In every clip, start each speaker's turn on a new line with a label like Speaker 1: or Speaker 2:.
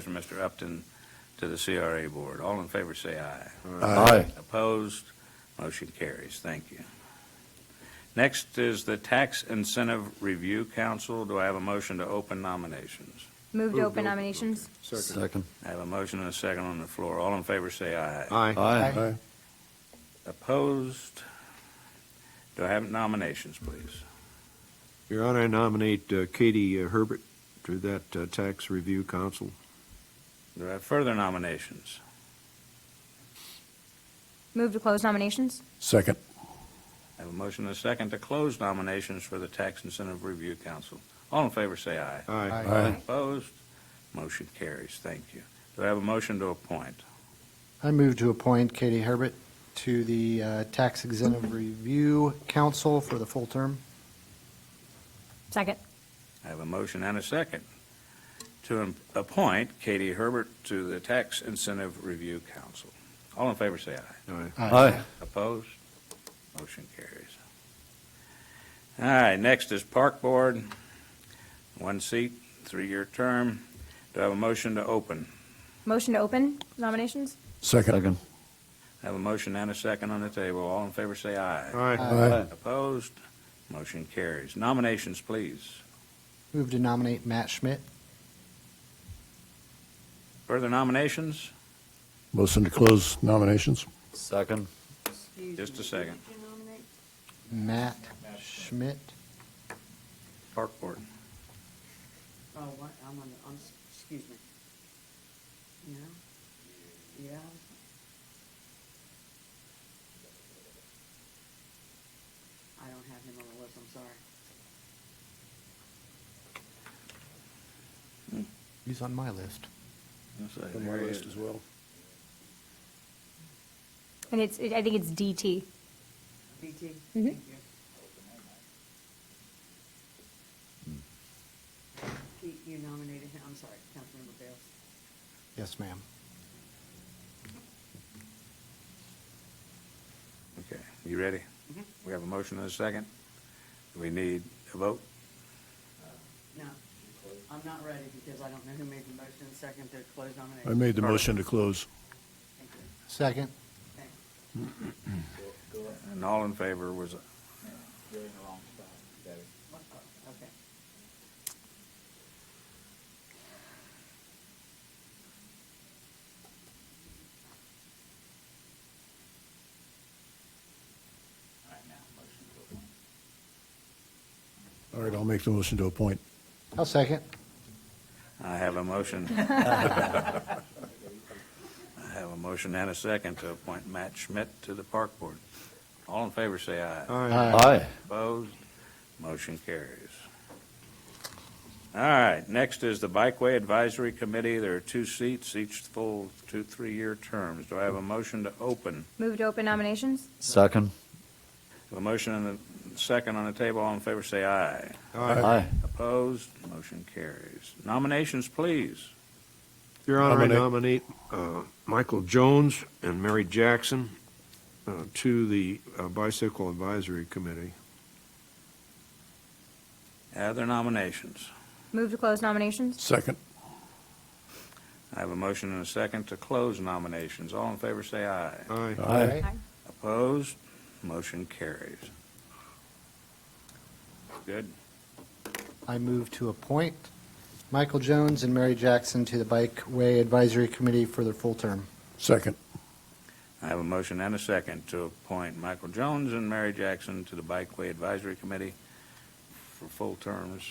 Speaker 1: from Mr. Upton to the CRA Board. All in favor, say aye.
Speaker 2: Aye.
Speaker 1: Opposed? Motion carries. Thank you. Next is the Tax Incentive Review Council. Do I have a motion to open nominations?
Speaker 2: Move
Speaker 3: Move to
Speaker 2: to
Speaker 3: open
Speaker 2: open.
Speaker 3: nominations.
Speaker 2: Second.
Speaker 1: I have a motion and a second on the floor. All in favor, say aye.
Speaker 2: Aye.
Speaker 1: Opposed? Do I have nominations, please?
Speaker 4: Your Honor, I nominate uh, Katie uh, Herbert to that uh, Tax Review Council.
Speaker 1: Do I have further nominations?
Speaker 3: Move to close nominations.
Speaker 2: Second.
Speaker 1: I have a motion and a second to close nominations for the Tax Incentive Review Council. All in favor, say aye.
Speaker 4: Aye.
Speaker 2: Aye.
Speaker 1: Opposed? Motion carries. Thank you. Do I have a motion to appoint?
Speaker 5: I move to appoint Katie Herbert to the uh, Tax Exemptive Review Council for the full term.
Speaker 3: Second.
Speaker 1: I have a motion and a second to em- appoint Katie Herbert to the Tax Incentive Review Council. All in favor, say aye.
Speaker 4: Aye.
Speaker 2: Aye.
Speaker 1: Opposed? Motion carries. All right, next is Park Board, one seat, three-year term. Do I have a motion to open?
Speaker 3: Motion to open nominations.
Speaker 2: Second.
Speaker 1: I have a motion and a second on the table. All in favor, say aye.
Speaker 4: Aye.
Speaker 2: Aye.
Speaker 1: Opposed? Motion carries. Nominations, please.
Speaker 5: Move to nominate Matt Schmidt.
Speaker 1: Further nominations?
Speaker 2: Motion to close nominations.
Speaker 6: Second.
Speaker 1: Just a second.
Speaker 5: Matt Schmidt.
Speaker 1: Park Board.
Speaker 7: Oh, what, I'm on the, I'm, s- excuse me. No? Yeah? I don't have him on the list, I'm sorry.
Speaker 5: He's on my list.
Speaker 2: well.
Speaker 3: And it's, I think it's DT.
Speaker 7: BT?
Speaker 3: Mhm.
Speaker 7: Thank you. Pete, you nominated him, I'm sorry, Councilmember Bales.
Speaker 5: Yes, ma'am.
Speaker 1: Okay, you ready?
Speaker 7: Mhm.
Speaker 1: We have a motion and a second. Do we need a vote?
Speaker 7: No, I'm not ready because I don't know who made the motion second to close nomination.
Speaker 2: I made the motion to close.
Speaker 7: Thank you.
Speaker 5: Second.
Speaker 7: Thank you.
Speaker 1: And all in favor was,
Speaker 7: Okay.
Speaker 2: All right, I'll make the motion to appoint.
Speaker 5: I'll second.
Speaker 1: I have a motion. I have a motion and a second to appoint Matt Schmidt to the Park Board. All in favor, say aye.
Speaker 6: Aye.
Speaker 1: Opposed? Motion carries. All right, next is the Bikeway Advisory Committee. There are two seats, each full two, three-year terms. Do I have a motion to open?
Speaker 3: Move to open nominations.
Speaker 6: Second.
Speaker 1: A motion and a second on the table. All in favor, say aye.
Speaker 6: Aye.
Speaker 1: Opposed? Motion carries. Nominations, please.
Speaker 4: Your Honor, I
Speaker 2: Nominate-
Speaker 4: nominate uh, Michael Jones and Mary Jackson uh, to the uh, Bicycle Advisory Committee.
Speaker 1: Other nominations.
Speaker 3: Move to close nominations.
Speaker 2: Second.
Speaker 1: I have a motion and a second to close nominations. All in favor, say aye.
Speaker 4: Aye.
Speaker 2: Aye.
Speaker 1: Opposed? Motion carries. Good.
Speaker 5: I move to appoint Michael Jones and Mary Jackson to the Bikeway Advisory Committee for their full term.
Speaker 2: Second.
Speaker 1: I have a motion and a second to appoint Michael Jones and Mary Jackson to the Bikeway Advisory Committee for full terms.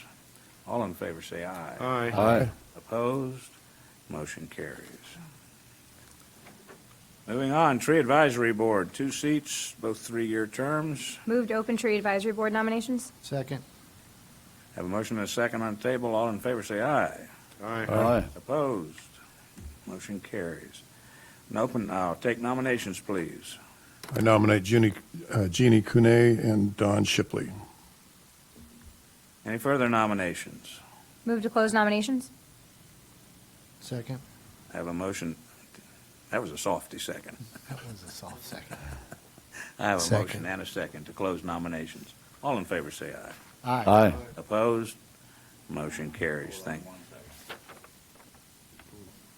Speaker 1: All in favor, say aye.
Speaker 4: Aye.
Speaker 6: Aye.
Speaker 1: Opposed? Motion carries. Moving on, Tree Advisory Board, two seats, both three-year terms.
Speaker 3: Move to open tree advisory board nominations.
Speaker 5: Second.
Speaker 1: Have a motion and a second on the table. All in favor, say aye.
Speaker 6: Aye.
Speaker 1: Opposed? Motion carries. And open, I'll take nominations, please.
Speaker 2: I nominate Jeannie, uh, Jeannie Cunet and Don Shipley.
Speaker 1: Any further nominations?
Speaker 3: Move to close nominations.
Speaker 5: Second.
Speaker 1: I Have a motion, that was a softy second.
Speaker 5: That was a soft second.
Speaker 1: I have a motion
Speaker 5: Second.
Speaker 1: and a second to close nominations. All in favor, say aye.
Speaker 5: Aye.
Speaker 6: Aye.
Speaker 1: Opposed? Motion carries. Thank,